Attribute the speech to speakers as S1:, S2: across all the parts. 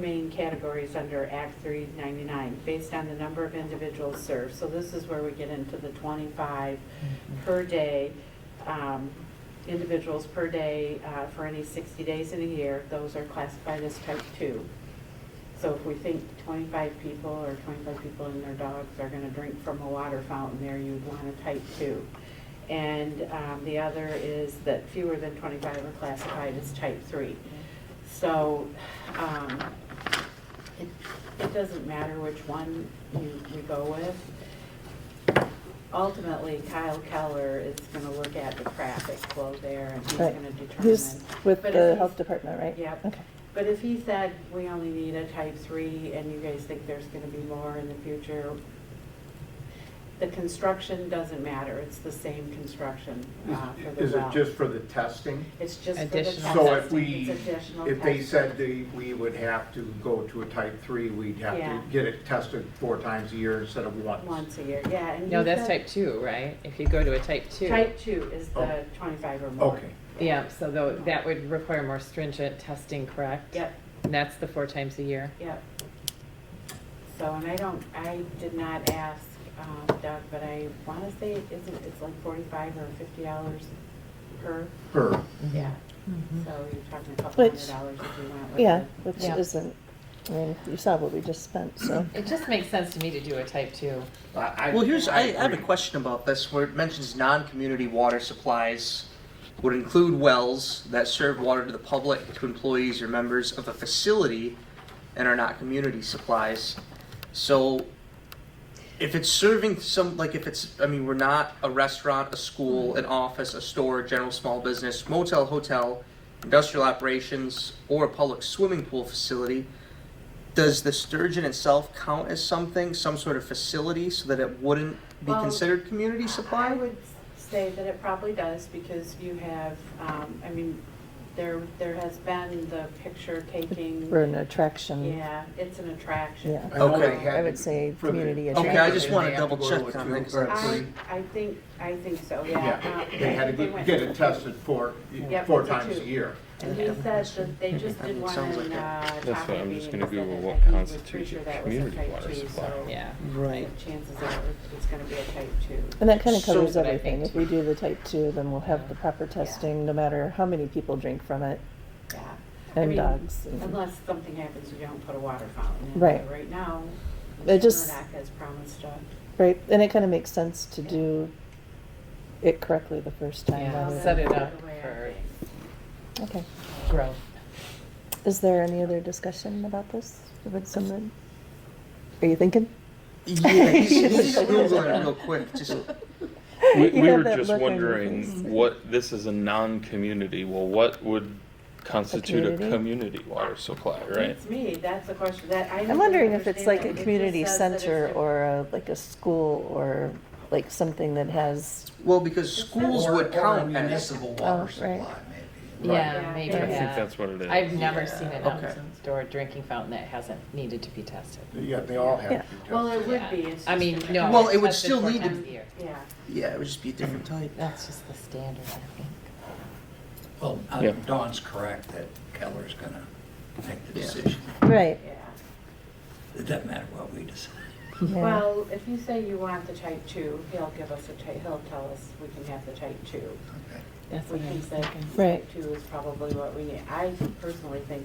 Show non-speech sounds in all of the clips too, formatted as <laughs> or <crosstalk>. S1: main categories under Act 399, based on the number of individuals served. So this is where we get into the 25 per day, um, individuals per day uh, for any 60 days in a year. Those are classified as type 2. So if we think 25 people or 25 people and their dogs are going to drink from a water fountain there, you'd want a type 2. And um, the other is that fewer than 25 are classified as type 3. So um, it it doesn't matter which one you we go with. Ultimately, Kyle Keller is going to look at the traffic flow there and he's
S2: Right.
S1: going to determine.
S2: He's with
S1: But
S2: the
S1: if
S2: health
S1: he's-
S2: department, right?
S1: Yep.
S2: Okay.
S1: but if he said, we only need a type three, and you guys think there's gonna be more in the future, the construction doesn't matter, it's the same construction uh, for the
S3: Is it
S1: well.
S3: just for the testing?
S1: It's just for the
S4: Additional.
S3: So if
S1: testing.
S3: we,
S1: It's additional
S3: if they
S1: testing.
S3: said they, we would have to go to a type three, we'd have
S1: Yeah.
S3: to get it tested four times a year instead of once.
S1: Once a year, yeah, and
S4: No,
S1: he
S4: that's
S1: said-
S4: type two, right? If you go to a type two.
S1: Type two is the
S3: Oh.
S1: twenty-five or more.
S3: Okay,
S4: Yeah, so tho- that would require more stringent testing, correct?
S1: Yep,
S4: And that's the four times a year.
S1: yep. So, and I don't, I did not ask um, Doug, but I wanna say it isn't, it's like forty-five or fifty dollars per
S3: per,
S1: Yeah,
S4: Mhm.
S1: so you're talking a couple hundred
S2: Mm-hmm. Which-
S1: dollars if you went with it.
S2: Yeah, which
S4: Yeah.
S2: isn't, I mean, you saw what we just spent, so.
S4: It just makes sense to me to do a type two.
S3: I, I.
S5: Well, here's, I, I have a
S3: agree.
S5: question about this, where it mentions non-community water supplies would include wells that serve water to the public, to employees or members of a facility and are not community supplies. So if it's serving some, like if it's, I mean, we're not a restaurant, a school, an office, a store, general small business, motel, hotel, industrial operations, or a public swimming pool facility, does the sturgeon itself count as something, some sort of facility, so that it wouldn't be
S1: Well,
S5: considered community
S1: I
S5: supply?
S1: would say that it probably does, because you have, um, I mean, there, there has been the picture taking,
S2: We're an attraction.
S1: yeah, it's an attraction. Um,
S2: Yeah.
S3: I know
S5: Okay.
S3: they had
S2: I would
S3: to-
S2: say
S3: for the-
S2: community
S3: for the-
S5: Okay, I just
S3: they
S5: wanna
S3: had to
S5: double
S3: go
S5: check
S3: to a
S5: on
S3: two
S5: that, 'cause
S3: or a
S1: I,
S3: three.
S1: I think, I think so, yeah.
S3: Yeah,
S1: Uh,
S3: they had to
S1: they
S3: go-
S1: went
S3: get it
S1: with-
S3: tested four,
S1: Yep,
S3: four
S1: to
S3: times
S1: two.
S3: a year.
S1: And he said that they just
S5: Mhm.
S1: did one
S5: Sounds
S1: in,
S5: like
S1: uh,
S5: it.
S1: Tahiti.
S6: That's what I'm just gonna
S1: and said
S6: Google
S1: that
S6: what
S1: I think with
S6: constitutes
S1: Treacher
S6: a
S1: that was
S6: community
S1: type
S6: water
S1: two,
S6: supply.
S1: so
S4: Yeah.
S5: Right.
S1: the Chances are, it's gonna be a type two.
S2: And that kind of
S5: So-
S2: covers
S4: But I
S2: everything.
S4: think-
S2: If we do the type two, then we'll have the proper testing, no matter how many people drink from it.
S1: Yeah. I
S2: And
S1: mean,
S2: dogs and-
S1: Unless something happens, you don't put a water fountain in.
S2: Right.
S1: But Right now,
S2: It
S1: Mr.
S2: just-
S1: Murdock has promised to.
S2: Right, and it kind of makes sense to do it correctly the first time.
S4: Yeah,
S2: rather
S4: set
S2: than-
S4: it up
S1: The way I
S4: for
S2: Okay.
S4: growth.
S2: Is there any other discussion about this? Would someone, are you thinking?
S5: Yeah,
S2: <laughs>
S5: he's, he's googling it real quick. Just
S6: We,
S2: You
S6: we
S2: have
S6: were
S2: that
S6: just
S2: look on your face.
S6: wondering what, this is a non-community, well, what would constitute a
S2: community?
S6: community water supply, right?
S1: It's me, that's the question that I.
S2: I'm wondering if it's like a community center
S1: or.
S2: or a- like a school or like something that has,
S5: well, because schools
S7: Or-
S5: would
S7: or
S5: count as
S7: municipal
S2: Oh,
S7: water
S2: right.
S7: supply, maybe.
S4: Yeah,
S6: I
S4: maybe,
S6: think
S4: yeah.
S6: that's what it is.
S4: I've never seen an
S5: Yeah, okay.
S4: outdoor drinking fountain that hasn't needed to be tested.
S3: Yeah, they all have to
S2: Yeah.
S3: be tested.
S1: Well, it would
S4: Yeah.
S1: be, it's just.
S4: I mean,
S1: a-
S4: no.
S5: Well, it would
S4: tested
S5: still
S4: four
S5: need to-
S4: times a year.
S1: Yeah.
S5: Yeah, it would just be a different type.
S4: That's just the standard, I think.
S7: Well, uh,
S6: Yeah.
S7: Dawn's correct that Keller's gonna make the
S5: Yeah.
S7: decision.
S2: right,
S1: Yeah.
S7: It doesn't matter what we decide.
S2: yeah.
S1: Well, if you say you want the type two, he'll give us a type, he'll tell us we can have the type two.
S7: Okay.
S4: That's
S1: We
S4: what I
S1: can
S4: was
S1: say
S4: thinking.
S2: Right.
S1: Type two is probably what we need. I personally think.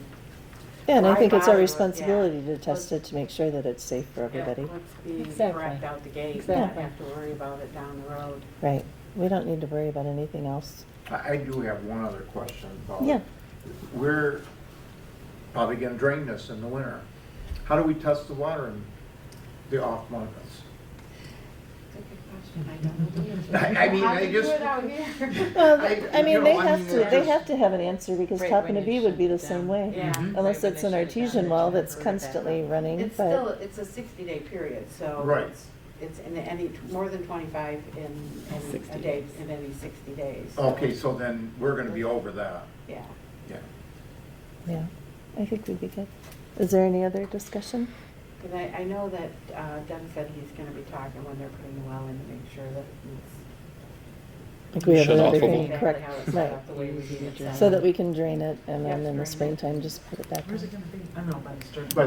S2: Yeah, and I
S1: why
S2: think it's our
S1: bother with- yeah.
S2: responsibility to test it
S1: Let's-
S2: to make sure that it's safe for
S1: yeah,
S2: everybody.
S1: Let's be
S4: Exactly.
S1: correct out the gate, not
S2: Exactly.
S1: have to worry about it down the road.
S2: Right, we don't need to worry about anything else.
S3: I, I do have one other question about.
S2: Yeah.
S3: We're probably gonna drain this in the winter. How do we test the water in the off months? <laughs> I- I mean,
S1: How
S3: I
S1: do you do
S3: just-
S1: it out
S3: <laughs>
S1: here?
S2: Well,
S3: I-
S2: I
S3: you
S2: mean,
S3: know,
S2: they
S3: I
S2: have
S3: mean,
S2: to, they
S3: it's-
S2: have to have an answer because
S4: Right,
S2: Tappan
S4: when you
S2: Abbey would be
S4: shut
S2: the
S4: it
S2: same
S4: down.
S2: way.
S1: Yeah.
S2: <laughs> Unless
S4: Right, when
S2: it's
S4: they
S2: an
S4: shut it
S2: artesian
S4: down,
S2: well
S4: I
S2: that's
S4: heard that.
S2: constantly running,
S1: It's still,
S2: but,
S1: it's a sixty-day period, so.
S3: Right.
S1: it's- It's in any, more than twenty-five in, in a
S4: 60
S1: day,
S4: days.
S1: in any sixty days.
S3: Okay, so then we're gonna be over that,
S1: Yeah.
S3: yeah.
S2: yeah, I think we'd be good. Is there any other discussion?
S1: Because I, I know that uh, Doug said he's gonna be talking when they're putting the well in to make sure that it's
S2: Like we have
S6: Shut off
S2: another
S6: a little.
S2: drain,
S1: Exactly
S2: correct,
S1: how it's set
S2: right.
S1: up, the way we need it set
S2: So
S1: up.
S2: that we can drain it and then
S1: Yeah,
S2: in
S1: drain
S2: the
S1: it.
S2: springtime, just put it back in.
S8: Where's it gonna be? I don't know, but it's during.
S3: But